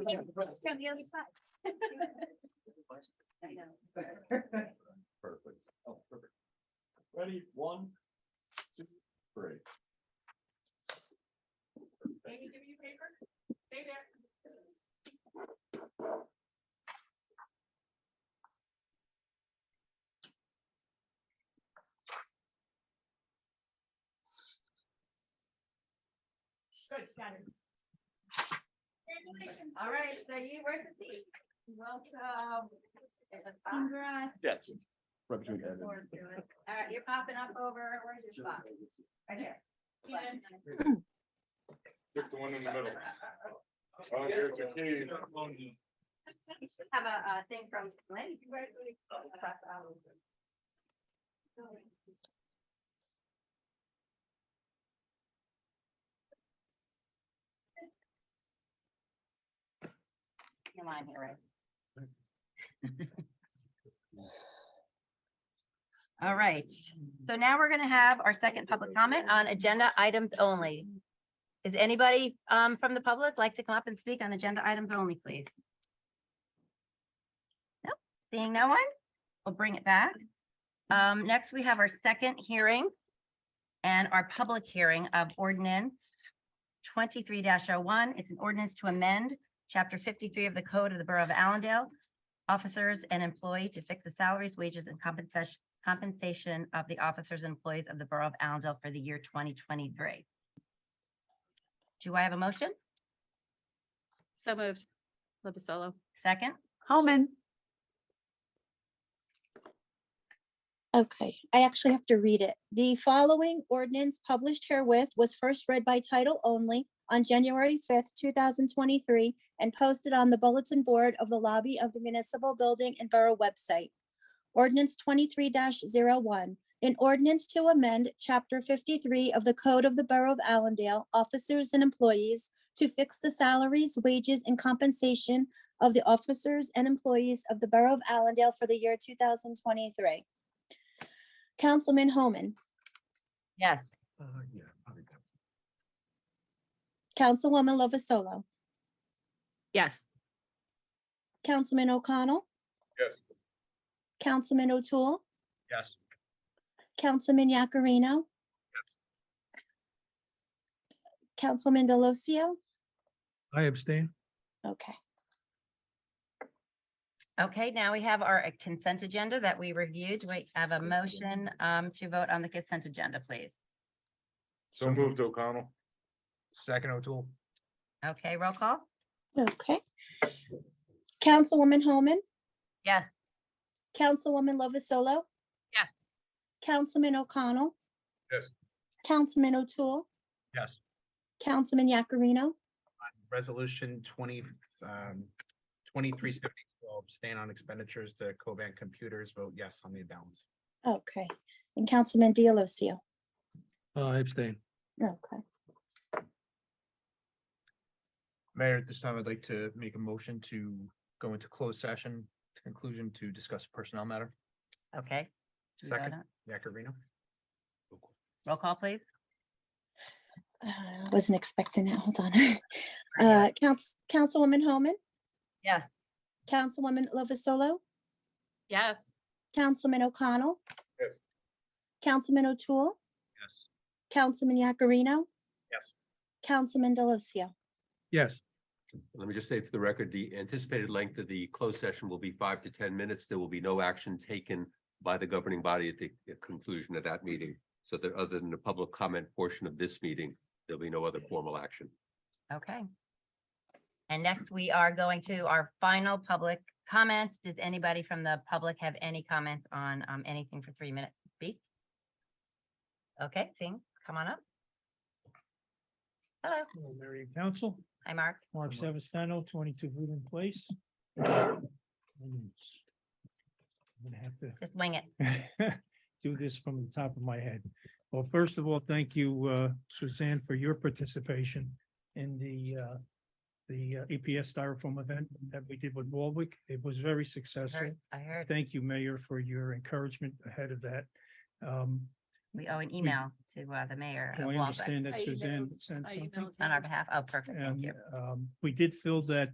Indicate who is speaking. Speaker 1: On the other side. I know.
Speaker 2: Perfect. Oh, perfect. Ready, one, two, three.
Speaker 3: Amy, give you paper? Stay there. Good, got it. Congratulations.
Speaker 1: All right, so you were the seat. Welcome. Sandra.
Speaker 2: Yes.
Speaker 1: Looking forward to it. All right, you're popping up over, where's your spot? Right here.
Speaker 3: Ian,
Speaker 4: Pick the one in the middle. Oh, here's the key.
Speaker 1: You should have a, uh thing from Lynn. Across the aisle. You're lying here, right? All right, so now we're gonna have our second public comment on agenda items only. Is anybody um from the public like to come up and speak on agenda items only, please? Nope, seeing no one, we'll bring it back. Um, next, we have our second hearing and our public hearing of ordinance twenty-three oh one It's an ordinance to amend chapter fifty-three of the Code of the Borough of Allendale, officers and employee to fix the salaries, wages, and compensation compensation of the officers and employees of the Borough of Allendale for the year twenty twenty-three. Do I have a motion?
Speaker 5: So moved. Lovasolo.
Speaker 1: Second?
Speaker 5: Holman.
Speaker 6: Okay, I actually have to read it. The following ordinance published herewith was first read by title only on January fifth, two thousand twenty-three, and posted on the bulletin board of the lobby of the municipal building and borough website. Ordinance twenty-three one an ordinance to amend chapter fifty-three of the Code of the Borough of Allendale, officers and employees to fix the salaries, wages, and compensation of the officers and employees of the Borough of Allendale for the year two thousand twenty-three. Councilman Homan,
Speaker 1: Yes.
Speaker 2: Uh, yeah. probably that.
Speaker 6: Councilwoman Lovasolo,
Speaker 5: Yes.
Speaker 6: Councilman O'Connell.
Speaker 4: Yes.
Speaker 6: Councilman O'Toole,
Speaker 2: Yes.
Speaker 6: Councilman Yakarino. Councilman Delosio,
Speaker 7: I abstain.
Speaker 6: okay.
Speaker 1: Okay, now we have our uh, consent agenda that we reviewed. We have a motion um, to vote on the consent agenda, please.
Speaker 4: So moved O'Connell.
Speaker 7: Second O'Toole.
Speaker 1: Okay, roll call?
Speaker 6: Okay. Councilwoman Homan,
Speaker 1: Yes.
Speaker 6: Councilwoman Lovasolo.
Speaker 5: Yes.
Speaker 6: Councilman O'Connell.
Speaker 4: Yes.
Speaker 6: Councilman O'Toole,
Speaker 7: Yes.
Speaker 6: Councilman Yakarino,
Speaker 7: Resolution twenty, um, twenty-three seventy-two, abstain on expenditures to Covan Computers, vote yes on the balance.
Speaker 6: okay, and Councilman Delosio.
Speaker 7: Uh, I abstain.
Speaker 6: Okay.
Speaker 7: Mayor, at this time, I'd like to make a motion to go into closed session, to conclusion to discuss personnel matter.
Speaker 1: Okay. Do we vote
Speaker 7: Second.
Speaker 1: on-
Speaker 7: Yakarino?
Speaker 1: Roll call, please?
Speaker 6: Uh, Wasn't expecting that. Hold on. Uh, Council, Councilwoman Homan.
Speaker 1: Yes.
Speaker 6: Councilwoman Lovasolo,
Speaker 5: Yes.
Speaker 6: Councilman O'Connell.
Speaker 4: Yes.
Speaker 6: Councilman O'Toole,
Speaker 7: Yes.
Speaker 6: Councilman Yakarino.
Speaker 7: Yes.
Speaker 6: Councilman Delosio.
Speaker 7: Yes.
Speaker 8: Let me just say for the record, the anticipated length of the closed session will be five to ten minutes. There will be no action taken by the governing body at the conclusion of that meeting. So that other than the public comment portion of this meeting, there'll be no other formal action.
Speaker 1: Okay. And next, we are going to our final public comments. Does anybody from the public have any comments on um, anything for three minutes to speak? Okay, Singh, come on up. Hello,
Speaker 9: Hello, Mary and Council,
Speaker 1: hi, Mark.
Speaker 9: Mark Savastano, twenty-two Woodland Place. I'm gonna have to
Speaker 1: Just wing it.
Speaker 9: do this from the top of my head. Well, first of all, thank you, uh, Suzanne, for your participation in the, uh, the uh, EPS Styrofoam event that we did with Warwick. It was very successful.
Speaker 1: Heard- I heard,
Speaker 9: Thank you, Mayor, for your encouragement ahead of that. Um,
Speaker 1: we owe an email to uh, the mayor
Speaker 9: I
Speaker 1: of Walbeck
Speaker 9: understand that
Speaker 5: I
Speaker 9: Suzanne
Speaker 5: emailed-
Speaker 9: sent
Speaker 5: I
Speaker 9: something.
Speaker 5: emailed
Speaker 1: on our
Speaker 5: him.
Speaker 1: behalf. Oh, perfect, thank
Speaker 9: And,
Speaker 1: you.
Speaker 9: um, we did fill that